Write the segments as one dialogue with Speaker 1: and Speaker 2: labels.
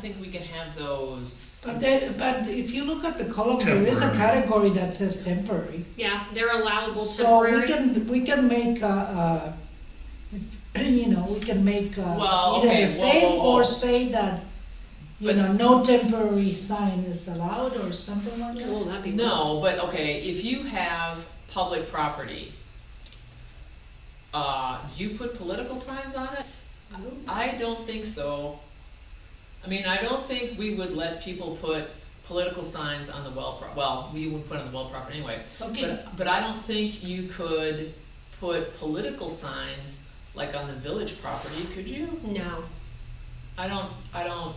Speaker 1: think we can have those,
Speaker 2: But that, but if you look at the column, there is a
Speaker 3: Temporary.
Speaker 2: category that says temporary.
Speaker 4: Yeah, they're allowable
Speaker 2: So we
Speaker 4: temporary.
Speaker 2: can, we can make, uh, uh, you know, we can make,
Speaker 1: Well,
Speaker 2: uh, either
Speaker 1: okay, whoa,
Speaker 2: the same
Speaker 1: whoa, whoa.
Speaker 2: or say that, you
Speaker 1: But-
Speaker 2: know, no temporary sign is allowed or something like that.
Speaker 4: Oh, that'd be.
Speaker 1: no, but okay, if you have public property, uh, do you put political signs on it?
Speaker 4: Oh,
Speaker 1: I don't think so. I mean, I don't think we would let people put political signs on the well pro, well, we wouldn't put it on the well property anyway.
Speaker 2: Okay,
Speaker 1: But, but I don't think you could put political signs like on the village property, could you?
Speaker 4: No,
Speaker 1: I don't, I don't,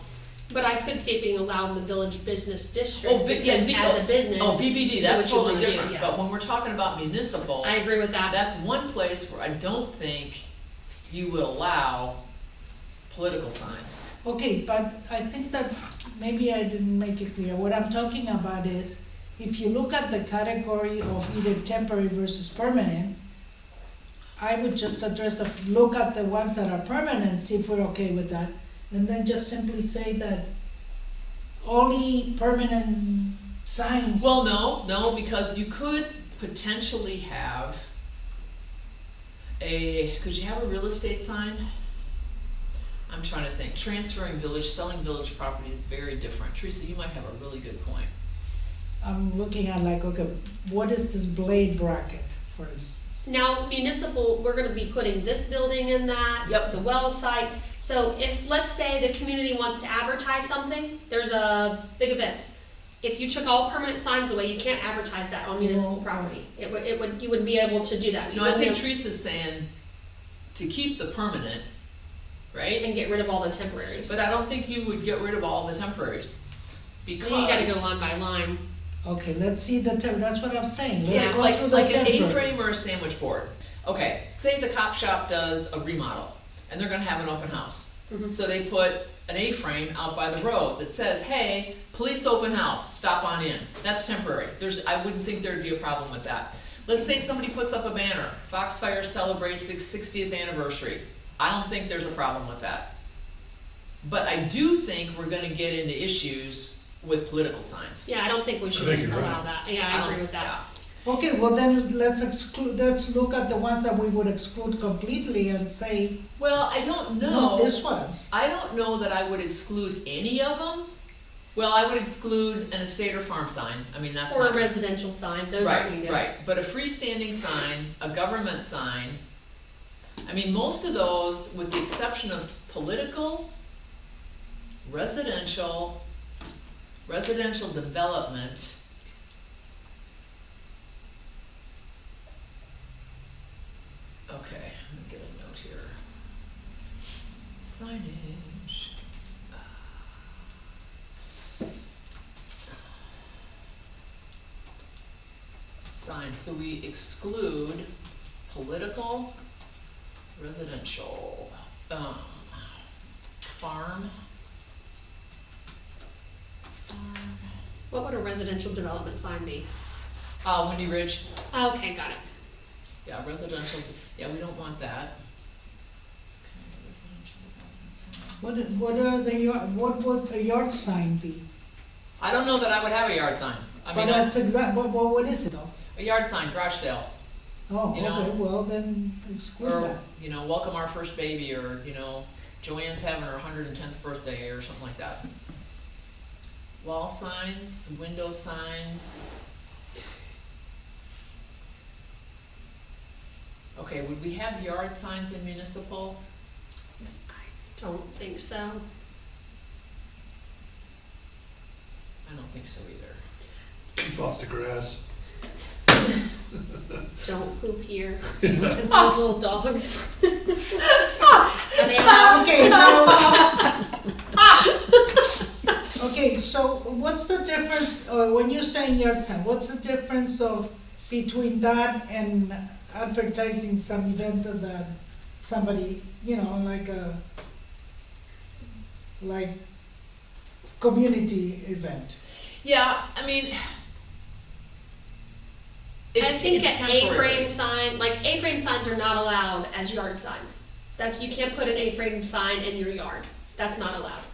Speaker 4: but I could see it being allowed in the village business
Speaker 1: oh,
Speaker 4: district,
Speaker 1: but, yeah,
Speaker 4: because
Speaker 1: B-
Speaker 4: as a business.
Speaker 1: Oh, BBD,
Speaker 4: do
Speaker 1: that's
Speaker 4: what you
Speaker 1: totally
Speaker 4: wanna do,
Speaker 1: different, Oh.
Speaker 4: yeah.
Speaker 1: but when we're talking about municipal,
Speaker 4: I agree with that,
Speaker 1: that's one place where I don't think you would allow political signs.
Speaker 2: okay, but I think that maybe I didn't make it clear. What I'm talking about is, if you look at the category of either temporary versus permanent, I would just address the, look at the ones that are permanent, see if we're okay with that, and then just simply say that only permanent signs.
Speaker 1: Well, no, no, because you could potentially have a, could you have a real estate sign? I'm trying to think, transferring village, selling village property is very different, Teresa, you might have a really good point.
Speaker 2: I'm looking at like, okay, what is this blade bracket, for instance?
Speaker 4: Now municipal, we're gonna be putting this building in that.
Speaker 1: Yep.
Speaker 4: The well sites, so if, let's say the community wants to advertise something, there's a big event. If you took all permanent signs away, you can't advertise that on municipal
Speaker 2: No.
Speaker 4: property. It would, it would, you wouldn't be able to do that. You
Speaker 1: No, I
Speaker 4: wouldn't
Speaker 1: think
Speaker 4: be
Speaker 1: Teresa's saying to keep the permanent,
Speaker 4: able-
Speaker 1: right?
Speaker 4: And get rid of all the temporaries.
Speaker 1: But I don't think you would get rid of all the temporaries,
Speaker 4: Then you gotta go
Speaker 1: because,
Speaker 4: line by line.
Speaker 2: Okay, let's see the, tem- that's what I'm saying, let's
Speaker 4: Yeah,
Speaker 1: yeah,
Speaker 2: go
Speaker 1: like,
Speaker 2: through the
Speaker 1: like an
Speaker 2: temporary.
Speaker 1: A-frame or a sandwich board. Okay, say the cop shop does a remodel, and they're gonna have an open house.
Speaker 4: Mm-hmm.
Speaker 1: So they put an A-frame out by the road that says, hey, police open house, stop on in. That's temporary. There's, I wouldn't think there'd be a problem with that. Let's say somebody puts up a banner, Foxfire celebrates its sixtieth anniversary. I don't think there's a problem with that. But I do think we're gonna get into issues with political signs.
Speaker 4: Yeah, I don't think we should
Speaker 3: think you're
Speaker 4: allow
Speaker 3: right.
Speaker 4: that. Yeah, I agree with
Speaker 1: Yeah.
Speaker 4: that.
Speaker 2: Okay, well then, let's exclude, let's look at the ones that we would exclude completely and say,
Speaker 1: Well, I don't know.
Speaker 2: not this ones.
Speaker 1: I don't know that I would exclude any of them. Well, I would exclude an estate or farm sign, I mean, that's
Speaker 4: Or
Speaker 1: not.
Speaker 4: a residential sign, those aren't
Speaker 1: Right,
Speaker 4: needed.
Speaker 1: right, but a freestanding sign, a government sign, I mean, most of those, with the exception of political, residential, residential development. Okay, I'm gonna get a note here. Signage. signs, so we exclude political, residential, um, farm. farm,
Speaker 4: What would a residential development sign be?
Speaker 1: Uh, Windy Ridge,
Speaker 4: Okay, got it.
Speaker 1: yeah, residential, yeah, we don't want that. Okay, residential development sign.
Speaker 2: What, what are the, yard- what would a yard sign be?
Speaker 1: I don't know that I would have a yard sign, I
Speaker 2: But
Speaker 1: mean, a-
Speaker 2: that's exact, but, but what is it though?
Speaker 1: a yard sign, garage sale,
Speaker 2: Oh,
Speaker 1: You know.
Speaker 2: okay, well then, exclude
Speaker 1: or,
Speaker 2: that.
Speaker 1: you know, welcome our first baby, or, you know, Joanne's having her hundred and tenth birthday, or something like that. Wall signs, window signs. Okay, would we have yard signs in municipal?
Speaker 4: Don't think so.
Speaker 1: I don't think so either.
Speaker 3: Keep off the grass.
Speaker 4: Don't poop here. And Those little dogs. Are they allowed?
Speaker 2: Okay, now- Okay, so what's the difference, uh, when you're saying yard sign, what's the difference of, between that and advertising some event that somebody, you know, like a, like, community event?
Speaker 1: Yeah, I mean.
Speaker 4: I
Speaker 1: It's,
Speaker 4: think
Speaker 1: it's
Speaker 4: an A-frame
Speaker 1: temporary.
Speaker 4: sign, like A-frame signs are not allowed as yard signs. That's, you can't put an A-frame sign in your yard. That's not allowed.